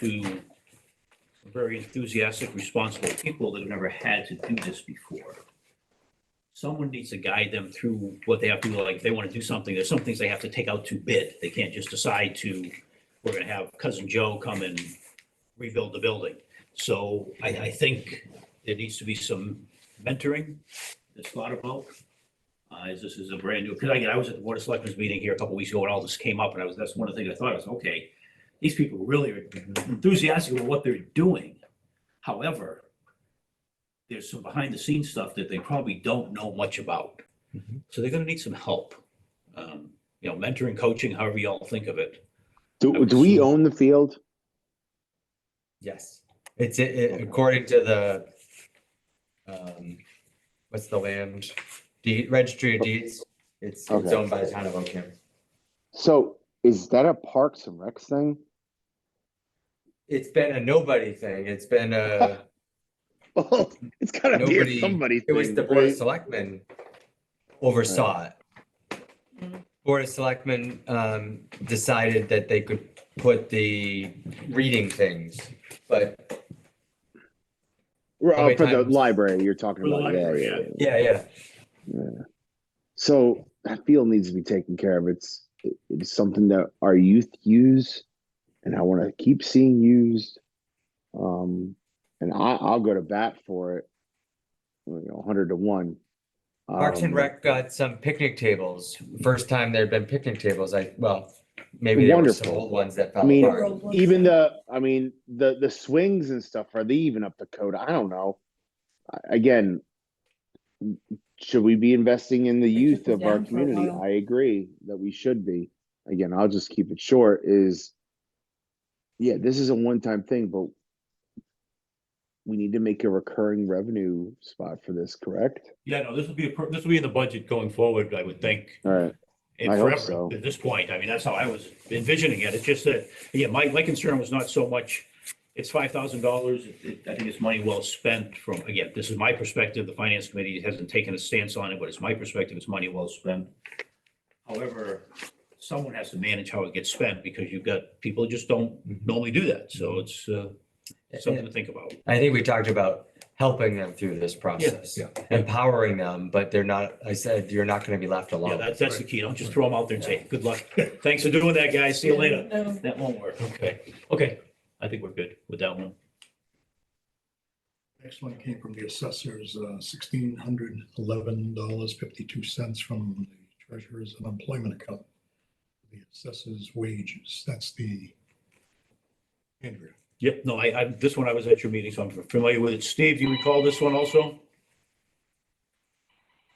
to very enthusiastic, responsible people that have never had to do this before. Someone needs to guide them through what they have to do, like, if they want to do something, there's some things they have to take out to bid. They can't just decide to, we're gonna have cousin Joe come and rebuild the building. So I, I think there needs to be some mentoring that's thought about. Uh, as this is a brand new, because I, I was at the Board of Selectmen's meeting here a couple weeks ago and all this came up and I was, that's one of the things I thought, I was, okay, these people really are enthusiastic about what they're doing. However, there's some behind the scenes stuff that they probably don't know much about. Mhm. So they're gonna need some help. Um, you know, mentoring, coaching, however y'all think of it. I Do, would do we assume. own the field? Yes, it's, it- it- according to the, um, what's the land deed, registry of deeds? It's, it's Okay. owned by the town of Oakham. So is that a Parks and Recs thing? It's been a nobody thing. It's been a, Oh, it's gotta be a Nobody- somebody it was thing, the board of right? selectmen oversaw it. Board of selectmen, um, decided that they could put the reading things, but Right, how many oh, For the times? library, you're talking For the about, yeah, library, yeah. yeah, yeah. yeah, yeah. So that field needs to be taken care of. It's, it- it's something that our youth use and I wanna keep seeing used. Um, and I, I'll go to bat for it. You know, hundred to one. Parks and Um, Rec got some picnic tables. First time there'd been picnic tables, I, well, maybe there were some Wonderful. old ones that I fell mean, apart. even the i mean the the swings and stuff are they even up to code i don't know I- again should we be investing in the They took youth it of our down for a community while. i agree that we should be again i'll just keep it short is yeah this is a one-time thing but we need to make a recurring revenue spot for this correct Yeah, no, this will be, a per- this will be in the budget going forward, I would think. all right And I hope forever, so. at this point, I mean, that's how I was envisioning it, it's just that, yeah, my, my concern was not so much, it's five thousand dollars, I think it's money well spent from, again, this is my perspective, the finance committee hasn't taken a stance on it, but it's my perspective, it's money well spent. However, someone has to manage how it gets spent, because you've got, people just don't normally do that, so it's, uh, something to think about. I think we talked about helping them through this process, empowering them, but they're not, I said, you're not gonna be left Yeah, alone. that's, that's the key, don't just throw them out there and say, good luck, thanks for doing that, guys, see you later. No. That won't work. Okay, okay. I think we're good with that one. Next one came from the assessors, uh, sixteen hundred eleven dollars fifty-two cents from the treasurer's unemployment account. The assessors wages, that's the. Andrew, Yep, no, I, I, this one I was at your meeting, so I'm familiar with it. Steve, do you recall this one also?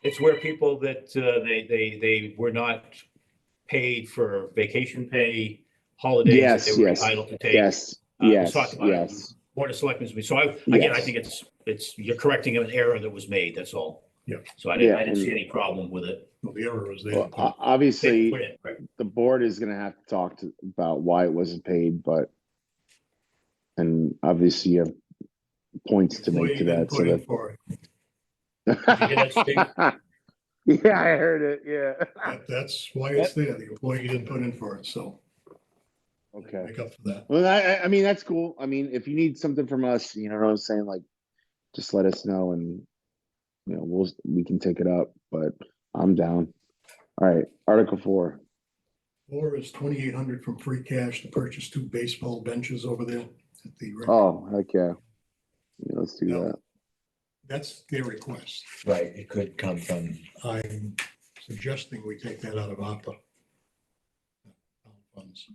It's where people that, uh, they, they, they were not paid for vacation pay, holidays that Yes, they were yes, entitled to take. yes Uh, we yes talked about it. yes Board of Selectmen's, meeting. so I, again, I Yes. think it's, it's, you're correcting an error that was made, that's all. Yeah. So I didn't, Yeah, I didn't and- see any problem with it. well, the error is there. well, o- obviously Put it, right. the board is gonna have to talk to, about why it wasn't paid, but. And obviously you have points to make to that, so Put in for it. hear that, that. Yeah, I heard it, yeah. That- That's why it's there, the employee didn't put in for it, so Okay, make up for that. well, I, I, I mean, that's cool, I mean, if you need something from us, you know what I'm saying, like, just let us know and. You know, we'll, we can take it up, but I'm down. Alright, Article four, Or is twenty-eight hundred from free cash to purchase two baseball benches over there at the. rec- oh, heck yeah. Yeah, let's do that. That's their request. Right, it could come from, I'm suggesting we take that out of ARPA. Funds.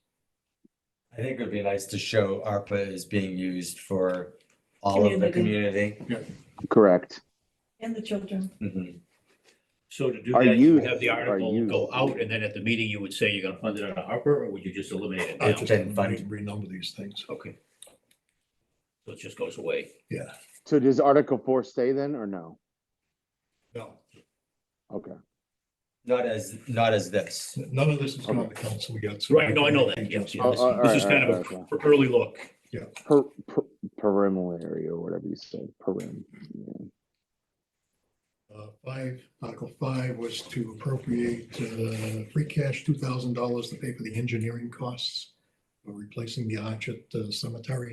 I think it would be nice to show ARPA is being used for all of the community. Correct, And the children. Mhm. So to do Are that, you would you- have the are article you- go out, and then at the meeting, you would say you're gonna fund it out of Harper, or would you just eliminate it I now? just then fund- re- renumber these things. Okay. So it just goes away. Yeah, so does Article four stay then, or no? no, Okay. Not as, not as this. none of this is on the council yet. so- Right, no, I know that, yeah, yeah, Oh, oh, this- this is alright, kind of alright, a okay. pr- early look. Per, per, perimal area or whatever you said, perim. yeah. Uh, Five, Article five was to appropriate uh, free cash, two thousand dollars to pay for the engineering costs. of We're replacing the arch at the cemetery